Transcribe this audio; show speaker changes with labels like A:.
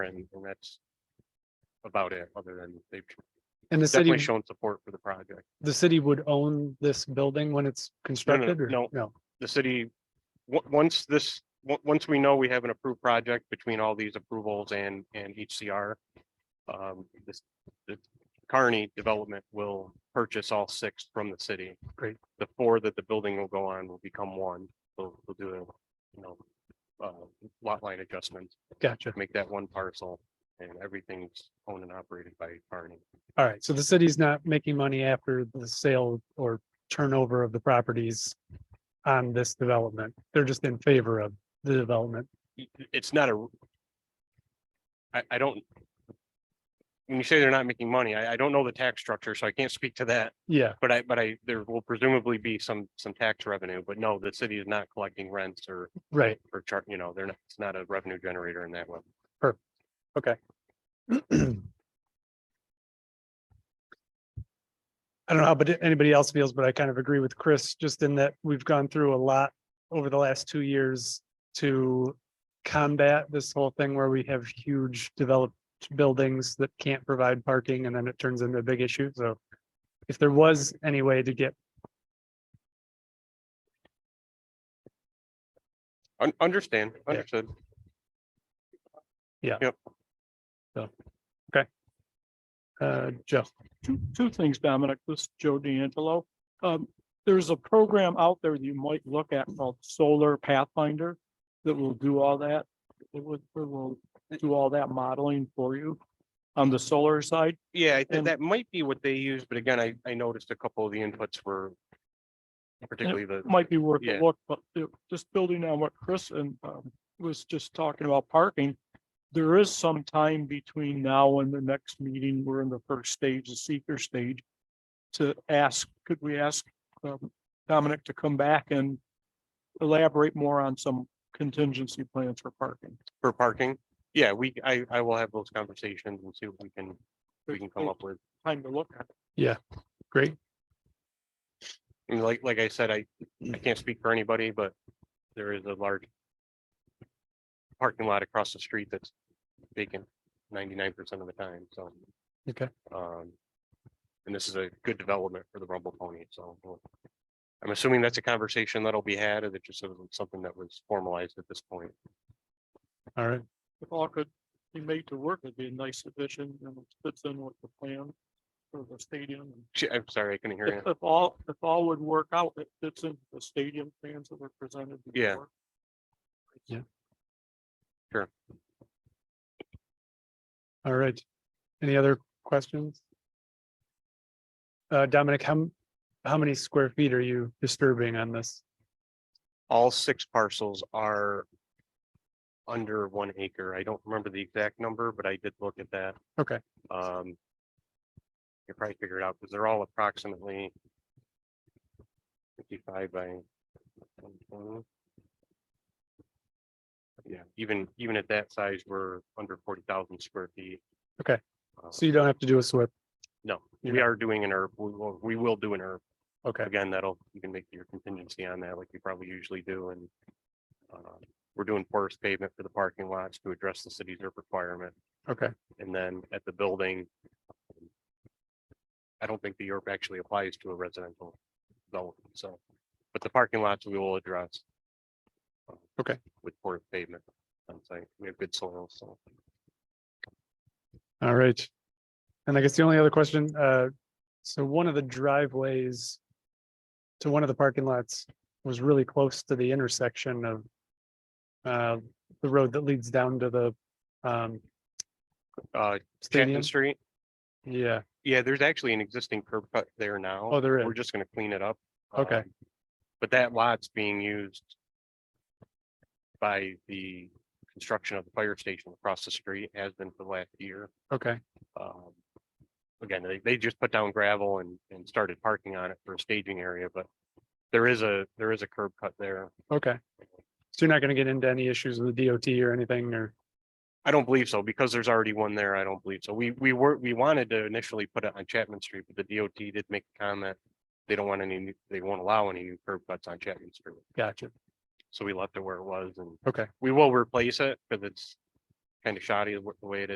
A: and and that's about it, other than they've
B: And the
A: definitely
B: city,
A: shown support for the project.
B: the city would own this building when it's constructed or?
A: no. The city, on- once this, on- once we know we have an approved project between all these approvals and, and HCR, um, this, the Carney Development will purchase all six from the city.
B: Great.
A: The four that the building will go on will become one. They'll, they'll do, a, you know, uh, lot line adjustments,
B: Gotcha.
A: make that one parcel and everything's owned and operated by Carney.
B: All right. So the city's not making money after the sale or turnover of the properties on this development. They're just in favor of the development.
A: y- it's not a. I, I don't. When you say they're not making money, I, I don't know the tax structure, so I can't speak to that,
B: Yeah.
A: but I, but I, there will presumably be some, some tax revenue, but no, the city is not collecting rents or,
B: Right.
A: or chart, you know, they're not, it's not a revenue generator in that way.
B: I don't know how, but anybody else feels, but I kind of agree with Chris, just in that we've gone through a lot over the last two years to combat this whole thing where we have huge developed buildings that can't provide parking and then it turns into a big issue. So if there was any way to get,
A: Un- understand,
B: Yeah.
A: understood.
B: uh, Joe,
C: two, two things, Dominic, this is Joe D'Angelo. Um, there's a program out there that you might look at called Solar Pathfinder that will do all that. It would, it will do all that modeling for you on the solar side.
A: Yeah, I think
C: And-
A: that might be what they use, but again, I, I noticed a couple of the inputs were. Particularly the.
C: Might be worth
A: Yeah.
C: a look, but it- just building on what Chris and um, was just talking about parking. There is some time between now and the next meeting. We're in the first stage, the seeker stage. to ask, could we ask um, Dominic to come back and elaborate more on some contingency plans for parking?
A: For parking, yeah, we, I, I will have those conversations and see what we can, we can come up with.
C: Time to look at. it.
B: great.
A: I mean, like, like I said, I, I can't speak for anybody, but there is a large parking lot across the street that's vacant ninety-nine percent of the time, so.
B: Okay.
A: Um, and this is a good development for the Rumble Pony, so. we'll- I'm assuming that's a conversation that'll be had, and it just isn't something that was formalized at this point.
B: All right.
C: If all could be made to work, it'd be a nice addition and it fits in with the plan for the stadium.
A: Sh- I'm sorry, I couldn't hear you.
C: If if all, if all would work out, it fits into the stadium plans that were presented.
A: Yeah.
C: before.
B: All right. Any other questions? Uh, Dominic, how, m- how many square feet are you disturbing on this?
A: All six parcels are under one acre. I don't remember the exact number, but I did look at that.
B: Okay.
A: Um. You probably figure it out because they're all approximately. Fifty-five by. 120. Yeah, even, even at that size, we're under forty thousand square feet.
B: Okay.
A: Uh,
B: So you don't have to do a SWIP.
A: No,
B: you're
A: we are doing an herb. We will, we will do an herb.
B: Okay,
A: Again, that'll, you can make your contingency on that like you probably usually do and. uh, We're doing porous pavement for the parking lots to address the city's herb requirement.
B: okay,
A: And then at the building. um, I don't think the Europe actually applies to a residential zone, so, but the parking lots we will address. uh,
B: Okay.
A: With poured pavement, I'm saying, we have good soil, so.
B: all right. And I guess the only other question, uh, so one of the driveways to one of the parking lots was really close to the intersection of uh, the road that leads down to the um,
A: Uh,
B: stadium.
A: Chapman Street,
B: Yeah,
A: yeah, there's actually an existing curb cut there now.
B: oh, there is.
A: We're just gonna clean it up.
B: Okay.
A: um, But that lot's being used. By the construction of the fire station across the street has been for the last year.
B: Okay,
A: Um, Again, they, they just put down gravel and, and started parking on it for a staging area, but there is a, there is a curb cut there.
B: okay. So you're not going to get into any issues with the DOT or anything or?
A: I don't believe so because there's already one there. I don't believe so. We, we were, we wanted to initially put it on Chapman Street, but the DOT did make a comment. They don't want any, new- they won't allow any new curb cuts on Chapman Street.
B: Gotcha.
A: So we left it where it was and.
B: Okay.
A: We will replace it because it's kind of shoddy the w- the way it is.